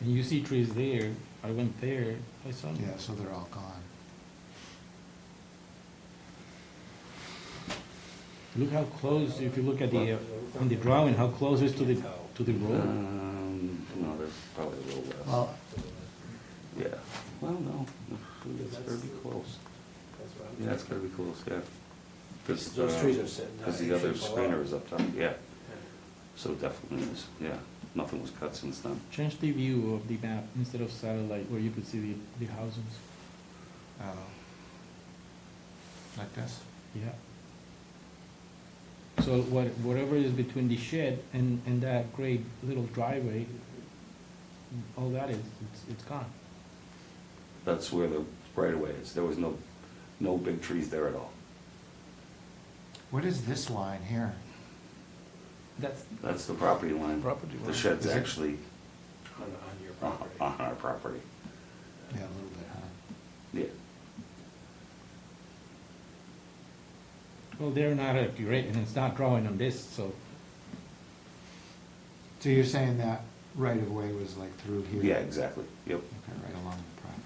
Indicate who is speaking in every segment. Speaker 1: And you see trees there, I went there, I saw them.
Speaker 2: Yeah, so they're all gone.
Speaker 1: Look how close, if you look at the, uh, on the drawing, how close it is to the, to the road.
Speaker 3: Um, no, there's probably a little less.
Speaker 2: Well,
Speaker 3: Yeah, well, no, that's pretty close. Yeah, that's gotta be close, yeah. 'Cause,
Speaker 4: Those
Speaker 3: uh,
Speaker 4: trees are sitting.
Speaker 3: Cause the other screener is up top, yeah, so definitely is, yeah, nothing was cut since then.
Speaker 1: Change the view of the map instead of satellite where you could see the, the houses.
Speaker 2: oh. Like this?
Speaker 1: Yeah. So what, whatever is between the shed and, and that great little driveway, all that is, it's, it's gone.
Speaker 3: That's where the right of way is, there was no, no big trees there at all.
Speaker 2: What is this line here?
Speaker 1: That's
Speaker 3: That's the property line.
Speaker 1: property.
Speaker 3: The
Speaker 1: line.
Speaker 3: shed's
Speaker 2: Is it-
Speaker 3: actually
Speaker 4: On, on your
Speaker 3: on
Speaker 4: property.
Speaker 3: on our property,
Speaker 2: Yeah, a little bit, huh?
Speaker 3: yeah.
Speaker 1: Well, they're not accurate, and it's not drawing on this, so,
Speaker 2: So you're saying that right of way was like through here?
Speaker 3: Yeah, exactly, yep.
Speaker 2: Okay, right along the property.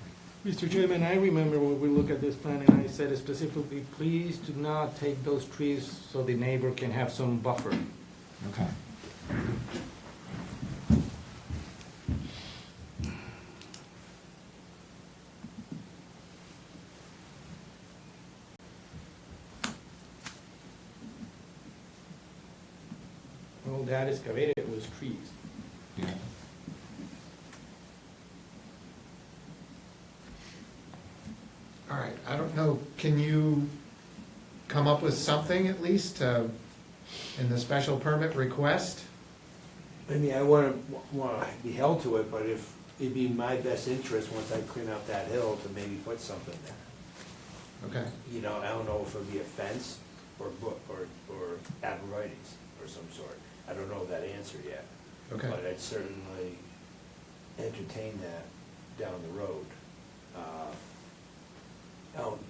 Speaker 1: Mr. Chairman, I remember when we looked at this plan and I said specifically, please do not take those trees so the neighbor can have some buffer.
Speaker 2: Okay.
Speaker 1: All that excavated was trees.
Speaker 2: Yeah.
Speaker 5: All right, I don't know, can you come up with something at least uh, in the special permit request?
Speaker 4: I mean, I wanna, wanna be held to it, but if, it'd be my best interest, once I clean up that hill, to maybe put something there.
Speaker 5: Okay,
Speaker 4: You know, I don't know if it'd be a fence or book, or, or arborvitae's or some sort. I don't know that answer yet.
Speaker 5: Okay.
Speaker 4: But I'd certainly entertain that down the road. Uh, I don't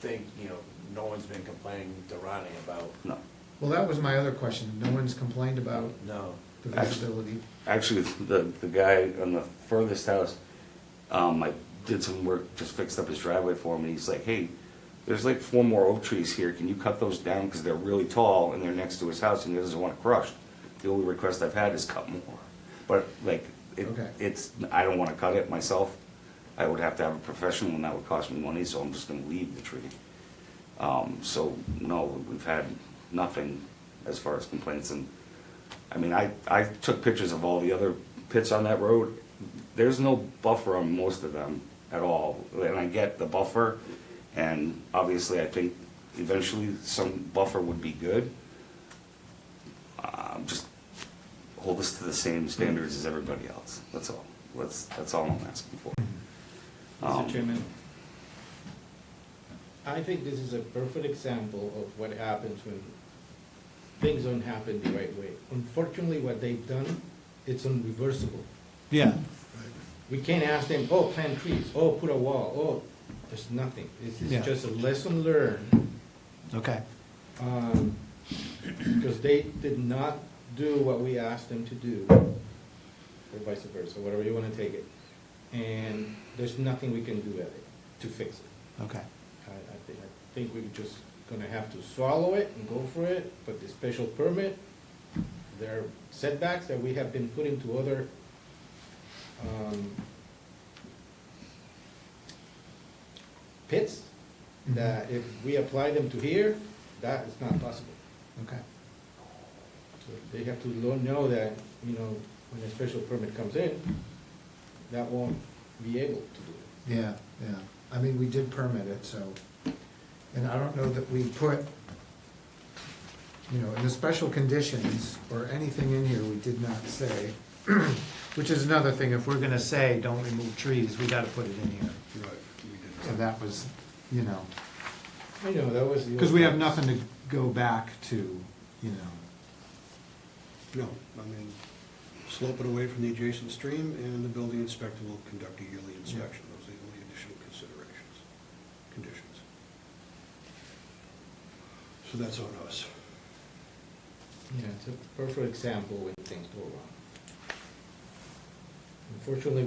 Speaker 4: think, you know, no one's been complaining to Ronnie about,
Speaker 3: No,
Speaker 5: well, that was my other question, no one's complained about
Speaker 4: no,
Speaker 5: the
Speaker 3: Actually-
Speaker 5: visibility.
Speaker 3: actually, the, the guy on the furthest house, um, I did some work, just fixed up his driveway for him, and he's like, hey, there's like four more oak trees here, can you cut those down, because they're really tall, and they're next to his house, and he doesn't want it crushed. The only request I've had is cut more, but like, it,
Speaker 5: Okay.
Speaker 3: it's, I don't wanna cut it myself, I would have to have a professional, and that would cost me money, so I'm just gonna leave the tree. Um, so, no, we've had nothing as far as complaints, and I mean, I, I took pictures of all the other pits on that road. There's no buffer on most of them at all, and I get the buffer, and obviously, I think eventually some buffer would be good. Um, just hold us to the same standards as everybody else, that's all, that's, that's all I'm asking for. Um,
Speaker 1: Mr. Chairman, I think this is a perfect example of what happens when things don't happen the right way. Unfortunately, what they've done, it's irreversible.
Speaker 2: Yeah.
Speaker 1: We can't ask them, oh, plant trees, oh, put a wall, oh, there's nothing. This
Speaker 2: Yeah.
Speaker 1: is just a lesson learned
Speaker 2: Okay.
Speaker 1: um, because they did not do what we asked them to do, or vice versa, whatever you wanna take it. And there's nothing we can do at it to fix it.
Speaker 2: Okay.
Speaker 1: I, I think, I think we're just gonna have to swallow it and go for it, but the special permit, there are setbacks that we have been put into other, um, pits,
Speaker 5: Mm-hmm.
Speaker 1: that if we apply them to here, that is not possible.
Speaker 2: Okay.
Speaker 1: So They have to lo- know that, you know, when a special permit comes in, that won't be able to do it.
Speaker 5: Yeah, yeah, I mean, we did permit it, so, and I don't know that we put, you know, in the special conditions or anything in here, we did not say, which is another thing, if we're gonna say, don't remove trees, we gotta put it in here.
Speaker 6: Right,
Speaker 5: So that was, you know,
Speaker 1: I know, that was the.
Speaker 5: because we have nothing to go back to, you know.
Speaker 6: No, I mean, slope it away from the adjacent stream, and the building inspector will conduct a yearly inspection. Those are the only additional considerations, conditions. So that's on us.
Speaker 1: Yeah, it's a perfect example when things go wrong. Unfortunately,